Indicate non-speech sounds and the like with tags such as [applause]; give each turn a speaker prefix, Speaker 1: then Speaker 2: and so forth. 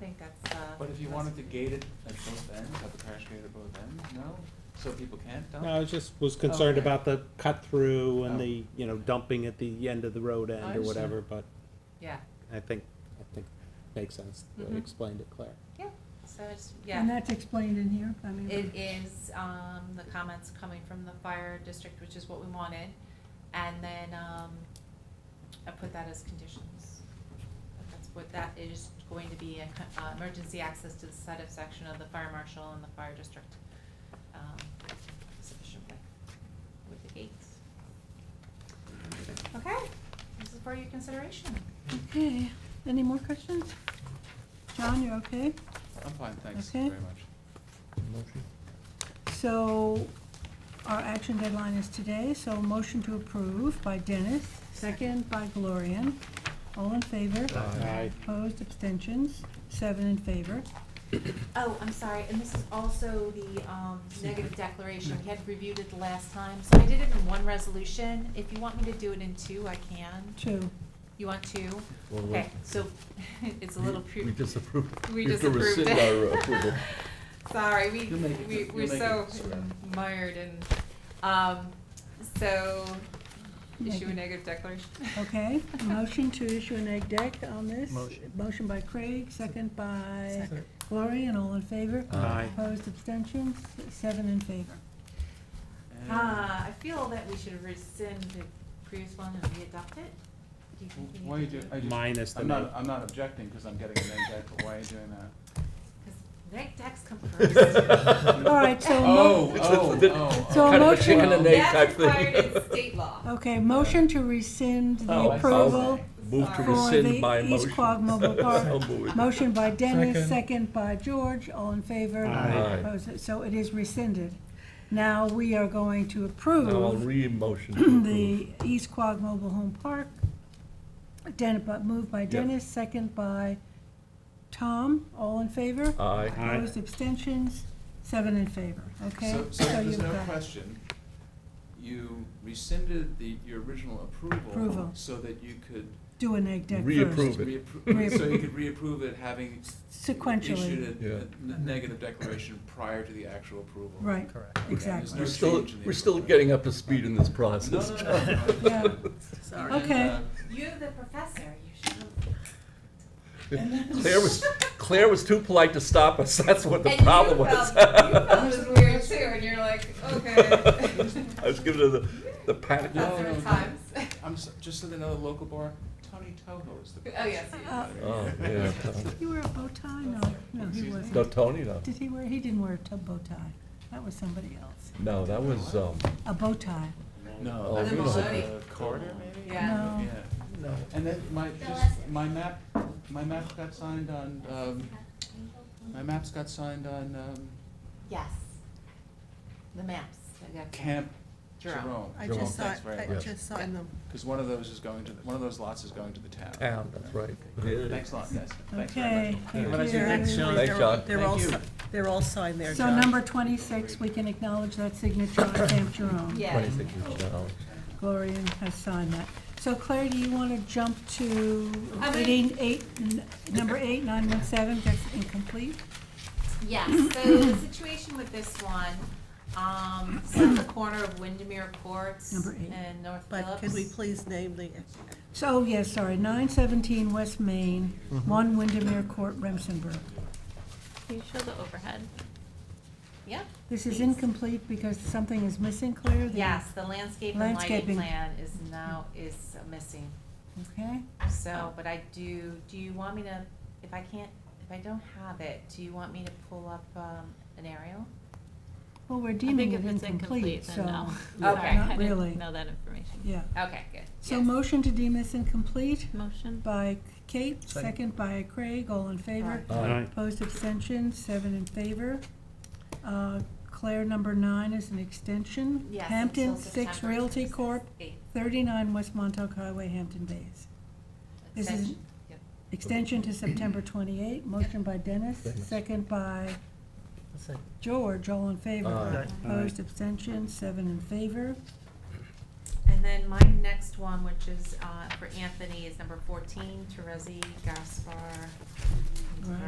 Speaker 1: think that's, uh.
Speaker 2: But if you wanted to gate it at both ends, have the crash gate at both ends, no? So people can't dump?
Speaker 3: No, I was just was concerned
Speaker 2: Oh. Okay.
Speaker 3: about the cut through
Speaker 2: Oh.
Speaker 3: and the, you know, dumping at the end of the road end or
Speaker 2: understand.
Speaker 3: whatever, but
Speaker 1: Yeah,
Speaker 3: I think, I think makes sense, the way
Speaker 2: Mm-hmm.
Speaker 3: you
Speaker 1: Mhm.
Speaker 3: explained it, Claire.
Speaker 1: yeah, so it's,
Speaker 4: And
Speaker 1: yeah,
Speaker 4: that's explained in here, I mean.
Speaker 1: it is, um, the comments coming from the fire district, which is what we wanted. And then, um, I put that as conditions. But That's what, that is going to be a, co- uh, emergency access to the site of section of the fire marshal and the fire district, um, sufficient width with the gates. Okay, this is for your consideration.
Speaker 4: Okay, any more questions? John, you're okay?
Speaker 2: I'm fine, thanks
Speaker 4: Okay.
Speaker 2: very much.
Speaker 4: So our action deadline is today, so motion to approve by Dennis, second by Gloria. All in favor?
Speaker 3: Aye.
Speaker 4: Opposed, abstentions, seven in favor.
Speaker 1: Oh, I'm sorry, and this is also the um, negative declaration. We had reviewed it the last time, so I did it in one resolution. If you want me to do it in two, I can.
Speaker 4: Two.
Speaker 1: You want two?
Speaker 5: Well, we-
Speaker 1: Okay, so [laughs] it's a little. pre-
Speaker 5: We disapproved.
Speaker 1: We
Speaker 5: You have to
Speaker 1: disapproved
Speaker 5: rescind
Speaker 1: it.
Speaker 5: our approval.
Speaker 1: [laughs] Sorry, we,
Speaker 2: You'll make it,
Speaker 1: we,
Speaker 2: you'll
Speaker 1: we're
Speaker 2: make
Speaker 1: so
Speaker 2: it, swear.
Speaker 1: mired in, um, so issue a
Speaker 4: Negative.
Speaker 1: negative declaration.
Speaker 4: Okay, motion to issue an egg deck on this.
Speaker 6: Motion.
Speaker 4: Motion by Craig, second by
Speaker 6: Second.
Speaker 4: Gloria, and all in favor?
Speaker 5: Aye.
Speaker 4: Opposed, abstentions, seven in favor.
Speaker 1: [laughs]
Speaker 2: And-
Speaker 1: Ah, I feel that we should rescind the previous one and readopt it. Do you think we need
Speaker 2: Why are you
Speaker 1: to
Speaker 2: do,
Speaker 1: do
Speaker 2: I just.
Speaker 3: Minus the
Speaker 2: I'm not,
Speaker 3: neg.
Speaker 2: I'm not objecting, cause I'm getting an egg but why are you doing that?
Speaker 1: Because neg decks come first.
Speaker 4: All right, so. mo-
Speaker 2: Oh,
Speaker 5: It's the-
Speaker 2: oh,
Speaker 5: the-
Speaker 2: oh.
Speaker 4: So
Speaker 2: oh.
Speaker 5: Kind of a
Speaker 4: motion-
Speaker 5: chicken and egg
Speaker 1: That's
Speaker 5: type thing.
Speaker 1: required in state law.
Speaker 4: Okay, motion to rescind the
Speaker 2: Oh, I see.
Speaker 4: approval
Speaker 5: Move to
Speaker 1: Sorry.
Speaker 4: for the
Speaker 5: rescind my
Speaker 4: East
Speaker 5: motion.
Speaker 4: Quogue
Speaker 5: [laughs]
Speaker 4: Mobile
Speaker 5: So
Speaker 4: Park.
Speaker 5: moved.
Speaker 4: Motion by Dennis,
Speaker 6: Second.
Speaker 4: second by George, all in favor.
Speaker 3: Aye.
Speaker 5: Aye.
Speaker 4: Opposed? So it is rescinded. Now we are going to
Speaker 5: Now I'll
Speaker 4: approve
Speaker 5: re-motion to
Speaker 4: [clears throat] the
Speaker 5: approve.
Speaker 4: East Quogue Mobile Home Park. Den, but moved by Dennis, second by Tom, all in favor.
Speaker 5: Aye.
Speaker 3: Aye.
Speaker 4: Opposed, abstentions, seven in favor, okay?
Speaker 2: So, so there's
Speaker 4: you've
Speaker 2: no
Speaker 4: got-
Speaker 2: question, you rescinded the, your original approval.
Speaker 4: Approval.
Speaker 2: So that you could
Speaker 4: Do an egg deck first.
Speaker 5: Reapprove it.
Speaker 2: reappro, so you could reapprove it having
Speaker 4: Sequentially.
Speaker 2: issued a- a,
Speaker 5: Yeah.
Speaker 2: n- negative declaration prior to the actual approval.
Speaker 4: Right,
Speaker 6: Correct.
Speaker 4: exactly.
Speaker 2: no
Speaker 5: We're still,
Speaker 2: change in the
Speaker 5: we're still
Speaker 2: approval.
Speaker 5: getting up to speed in this
Speaker 2: No,
Speaker 5: process.
Speaker 2: no, no.
Speaker 4: Yeah.
Speaker 2: And,
Speaker 1: Sorry.
Speaker 2: uh,
Speaker 4: Okay.
Speaker 1: You, the professor, you should. know.
Speaker 5: [laughs] Claire was, Claire was too polite to stop us, [laughs] that's what the
Speaker 1: And you
Speaker 5: problem
Speaker 1: felt-
Speaker 5: was.
Speaker 1: You felt it was weird too, and you're like, okay.
Speaker 5: [laughs] I was giving her the, the
Speaker 1: [laughs]
Speaker 5: pat.
Speaker 2: No,
Speaker 1: Professor
Speaker 2: no, no.
Speaker 1: at times.
Speaker 2: I'm, so- just so they know, the local bar, Tony Toho is the.
Speaker 1: Oh, yes, he is.
Speaker 4: Uh,
Speaker 5: Oh, yeah.
Speaker 4: Did he wear a bow tie? No, no, he
Speaker 2: Excuse me?
Speaker 5: No,
Speaker 4: wasn't.
Speaker 5: Tony, no.
Speaker 4: Did he wear, he didn't wear a tub bow tie. That was somebody else.
Speaker 5: No, that was, um,
Speaker 4: A bow tie.
Speaker 2: No.
Speaker 5: Oh,
Speaker 2: that
Speaker 5: we
Speaker 2: was
Speaker 5: don't-
Speaker 2: the Corridor, maybe?
Speaker 1: Yeah.
Speaker 4: No.
Speaker 2: Yeah. No. And then my, just, my map, my map got signed on, um, my maps got signed on, um,
Speaker 1: Yes. The maps. I got-
Speaker 2: Camp
Speaker 1: Jerome.
Speaker 2: Jerome.
Speaker 7: I
Speaker 5: Jerome,
Speaker 7: just saw,
Speaker 2: Thanks
Speaker 7: it-
Speaker 2: very
Speaker 7: I
Speaker 2: much.
Speaker 7: just saw them.
Speaker 2: Cause one of those is going to, one of those lots is going to the town.
Speaker 5: town, that's right.
Speaker 2: Thanks a lot, guys. Thanks very
Speaker 4: Okay,
Speaker 2: much.
Speaker 4: thank
Speaker 2: Have a nice
Speaker 4: you.
Speaker 2: evening.
Speaker 7: They're all-
Speaker 5: Thanks, John.
Speaker 7: They're all,
Speaker 2: Thank
Speaker 7: si-
Speaker 2: you.
Speaker 7: they're all signed there,
Speaker 4: So
Speaker 7: John.
Speaker 4: number twenty-six, we can acknowledge that signature on Camp Jerome.
Speaker 1: Yeah.
Speaker 5: Twenty-six inch now.
Speaker 4: Gloria has signed that. So Claire, do you want to jump to
Speaker 1: I mean-
Speaker 4: eighteen, eight, n- number eight, nine one seven, that's incomplete?
Speaker 1: Yes, so the
Speaker 4: [coughs]
Speaker 1: situation with this one, um, it's at the corner of Windermere Courts
Speaker 4: Number eight.
Speaker 1: and North
Speaker 7: But could we
Speaker 1: Phillips.
Speaker 7: please name the,
Speaker 4: So, oh, yes, sorry, nine seventeen West Main, one Windermere Court, Remsenburg.
Speaker 1: Can you show the overhead? Yeah.
Speaker 4: This is
Speaker 1: please.
Speaker 4: incomplete because something is missing, Claire? The-
Speaker 1: Yes, the landscape and lighting
Speaker 4: Landscaping.
Speaker 1: plan is now, is missing.
Speaker 4: Okay,
Speaker 1: So, but I do, do you want me to, if I can't, if I don't have it, do you want me to pull up, um, an aerial?
Speaker 4: well, we're
Speaker 8: I
Speaker 4: deeming
Speaker 8: think
Speaker 4: it
Speaker 8: if it's
Speaker 4: incomplete,
Speaker 8: incomplete,
Speaker 4: so.
Speaker 8: then no.
Speaker 4: yeah,
Speaker 1: Okay.
Speaker 8: [laughs] Sorry,
Speaker 4: Not
Speaker 8: I
Speaker 4: really,
Speaker 8: didn't know that information.
Speaker 4: yeah.
Speaker 1: Okay, good.
Speaker 4: So
Speaker 1: yes.
Speaker 4: motion to deem this incomplete
Speaker 8: Motion?
Speaker 4: by Kate, second by Craig, all in favor.
Speaker 1: Aye.
Speaker 3: Aye.
Speaker 4: Opposed, abstentions, seven in favor. Uh, Claire, number nine is an extension.
Speaker 1: Yes,
Speaker 4: Hampton
Speaker 1: until
Speaker 4: Six
Speaker 1: September
Speaker 4: Realty
Speaker 1: 26th,
Speaker 4: Corp.,
Speaker 1: eighth
Speaker 4: thirty-nine West Montauk Highway, Hampton Bays. This is-
Speaker 1: extension. Yep.
Speaker 4: Extension to September twenty-eight, motion by Dennis,
Speaker 5: Dennis.
Speaker 4: second by
Speaker 6: Second.
Speaker 4: George, all in favor.
Speaker 5: Aye.
Speaker 6: Aye.
Speaker 4: Opposed, abstentions, seven in favor.
Speaker 1: And then my next one, which is, uh, for Anthony, is number fourteen, Teresi Gaspar